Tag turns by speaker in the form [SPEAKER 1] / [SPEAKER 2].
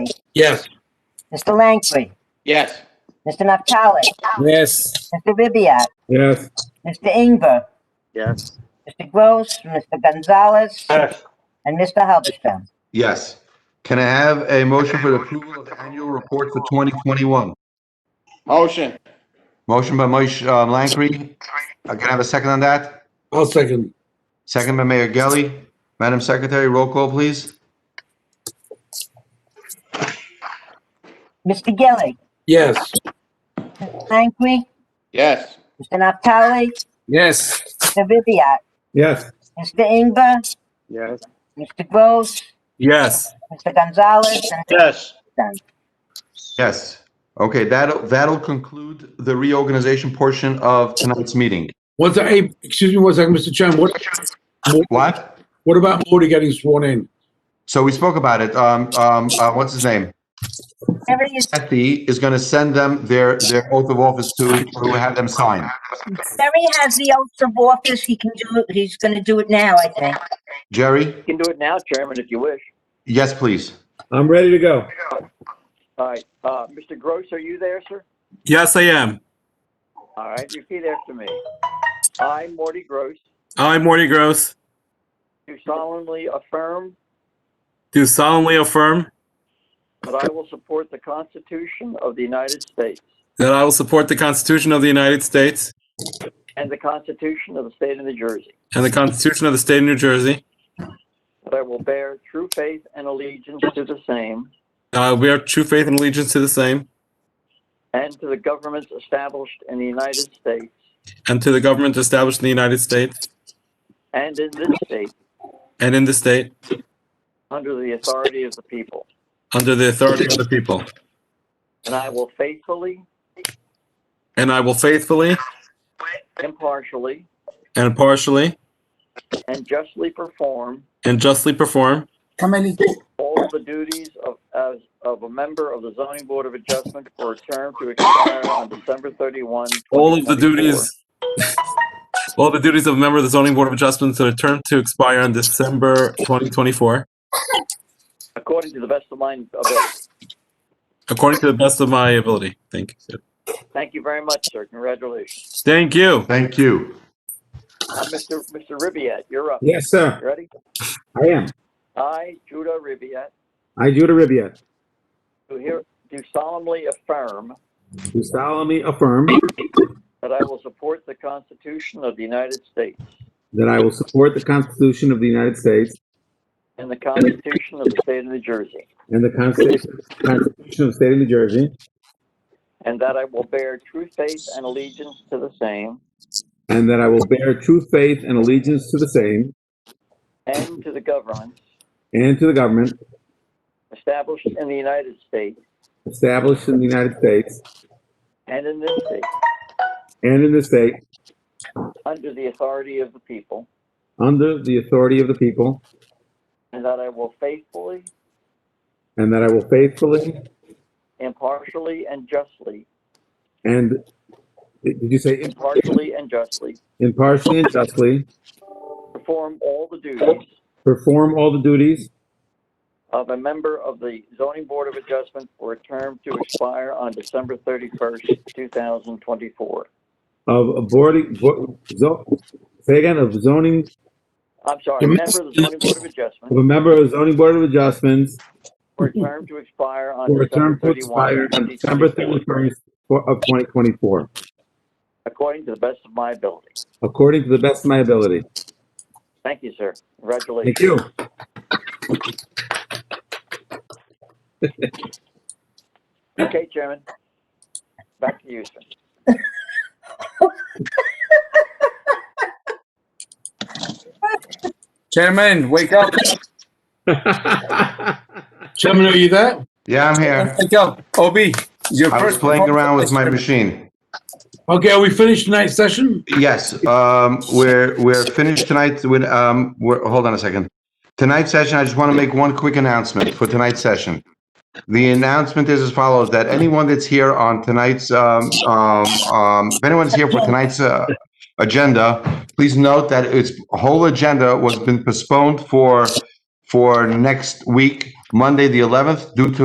[SPEAKER 1] Yes.
[SPEAKER 2] Mr. Langley,
[SPEAKER 3] Yes.
[SPEAKER 2] Mr. Naftali,
[SPEAKER 1] Yes.
[SPEAKER 2] Mr. Ribbiat,
[SPEAKER 1] Yes.
[SPEAKER 2] Mr. Ingber,
[SPEAKER 3] Yes.
[SPEAKER 2] Mr. Gross, Mr. Gonzalez,
[SPEAKER 3] Yes.
[SPEAKER 2] and Mr. Halberstam.
[SPEAKER 4] Yes. Can I have a motion for the approval of the annual report for 2021?
[SPEAKER 3] Motion.
[SPEAKER 4] Motion by Moshe um, Langkry. Uh, Can I have a second on that?
[SPEAKER 1] I'll second.
[SPEAKER 4] Second by Mayor Gelli. Madam Secretary, roll call, please.
[SPEAKER 2] Mr. Gillig,
[SPEAKER 1] Yes.
[SPEAKER 2] Mr. Langley,
[SPEAKER 3] Yes.
[SPEAKER 2] Mr. Naftali,
[SPEAKER 1] Yes.
[SPEAKER 2] Mr. Ribbiat,
[SPEAKER 1] Yes.
[SPEAKER 2] Mr. Ingber,
[SPEAKER 3] Yes.
[SPEAKER 2] Mr. Gross,
[SPEAKER 1] Yes.
[SPEAKER 2] Mr. Gonzalez, and Mr.
[SPEAKER 3] Yes.
[SPEAKER 2] Halberstam.
[SPEAKER 4] Yes. Okay, that'll, that'll conclude the reorganization portion of tonight's meeting.
[SPEAKER 5] One sec, hey, excuse me one second, Mr. Chairman, what,
[SPEAKER 4] What?
[SPEAKER 5] what about Moody getting sworn in?
[SPEAKER 4] So we spoke about it. Um, um, uh, what's his name?
[SPEAKER 2] Everybody is
[SPEAKER 4] Kathy is going to send them their, their oath of office to, to have them sign.
[SPEAKER 2] Jerry has the oath of office. He can do it. He's going to do it now, I think.
[SPEAKER 4] Jerry?
[SPEAKER 3] You can do it now, Chairman, if you wish.
[SPEAKER 4] Yes, please.
[SPEAKER 1] I'm ready to go.
[SPEAKER 3] All right. Uh, Mr. Gross, are you there, sir?
[SPEAKER 6] Yes, I am.
[SPEAKER 3] All right, repeat after me. I, Morty Gross,
[SPEAKER 6] I, Morty Gross,
[SPEAKER 3] do solemnly affirm
[SPEAKER 6] do solemnly affirm
[SPEAKER 3] that I will support the Constitution of the United States
[SPEAKER 6] that I will support the Constitution of the United States
[SPEAKER 3] and the Constitution of the State of New Jersey,
[SPEAKER 6] and the Constitution of the State of New Jersey.
[SPEAKER 3] that I will bear true faith and allegiance to the same
[SPEAKER 6] Uh, we are true faith and allegiance to the same
[SPEAKER 3] and to the governments established in the United States
[SPEAKER 6] and to the government established in the United States
[SPEAKER 3] and in this state
[SPEAKER 6] and in the state
[SPEAKER 3] under the authority of the people.
[SPEAKER 6] under the authority of the people.
[SPEAKER 3] And I will faithfully,
[SPEAKER 6] And I will faithfully
[SPEAKER 3] impartially,
[SPEAKER 6] and impartially
[SPEAKER 3] and justly perform
[SPEAKER 6] and justly perform
[SPEAKER 3] all the duties of, as, of a member of the zoning board of adjustment for a term to expire on December 31.
[SPEAKER 6] all of
[SPEAKER 3] 2024.
[SPEAKER 6] the duties all the duties of a member of the zoning board of adjustments that are term to expire on December 2024
[SPEAKER 3] According to the best of my ability.
[SPEAKER 6] according to the best of my ability. Thank you.
[SPEAKER 3] Thank you very much, sir. Congratulations.
[SPEAKER 6] Thank you.
[SPEAKER 4] Thank you.
[SPEAKER 3] Uh, Mr. Mr. Ribbiat, you're up.
[SPEAKER 1] Yes, sir.
[SPEAKER 3] You Ready?
[SPEAKER 1] I am.
[SPEAKER 3] I, Judah Ribbiat,
[SPEAKER 1] I, Judah Ribbiat,
[SPEAKER 3] do here, do solemnly affirm
[SPEAKER 1] do solemnly affirm
[SPEAKER 3] that I will support the Constitution of the United States
[SPEAKER 1] that I will support the Constitution of the United States
[SPEAKER 3] and the Constitution of the State of New Jersey,
[SPEAKER 1] and the Constitution Constitution of the State of New Jersey,
[SPEAKER 3] and that I will bear true faith and allegiance to the same
[SPEAKER 1] and that I will bear true faith and allegiance to the same
[SPEAKER 3] and to the governments
[SPEAKER 1] and to the government
[SPEAKER 3] established in the United States
[SPEAKER 1] established in the United States
[SPEAKER 3] and in this state
[SPEAKER 1] and in the state
[SPEAKER 3] under the authority of the people,
[SPEAKER 1] under the authority of the people,
[SPEAKER 3] and that I will faithfully,
[SPEAKER 1] and that I will faithfully
[SPEAKER 3] impartially, and justly,
[SPEAKER 1] and, did you say
[SPEAKER 3] impartially and justly
[SPEAKER 1] impartially and justly
[SPEAKER 3] perform all the duties
[SPEAKER 1] perform all the duties
[SPEAKER 3] of a member of the Zoning Board of Adjustment for a term to expire on December 31st, 2024.
[SPEAKER 1] of a boarding, bo- zo- say again, of zoning,
[SPEAKER 3] I'm sorry, a member of the Zoning Board of
[SPEAKER 1] of
[SPEAKER 3] Adjustment
[SPEAKER 1] a member of the zoning board of adjustments
[SPEAKER 3] for a term to expire on
[SPEAKER 1] for a
[SPEAKER 3] December
[SPEAKER 1] term to
[SPEAKER 3] 31.
[SPEAKER 1] expire on December 31st for- of 2024,
[SPEAKER 3] According to the best of my ability.
[SPEAKER 1] according to the best of my ability.
[SPEAKER 3] Thank you, sir. Congratulations.
[SPEAKER 1] Thank you.
[SPEAKER 3] Okay, Chairman. Back to you, sir.
[SPEAKER 7] Chairman, wake up,
[SPEAKER 5] Chairman, are you there?
[SPEAKER 4] Yeah, I'm here.
[SPEAKER 7] wake up. OB, your
[SPEAKER 4] I was
[SPEAKER 7] first.
[SPEAKER 4] playing around with my machine.
[SPEAKER 5] Okay, are we finished tonight's session?
[SPEAKER 4] Yes, um, we're, we're finished tonight with, um, we're, hold on a second. Tonight's session, I just want to make one quick announcement for tonight's session. The announcement is as follows, that anyone that's here on tonight's, um, um, um, if anyone's here for tonight's, uh, agenda, please note that its whole agenda was been postponed for, for next week, Monday, the 11th, due to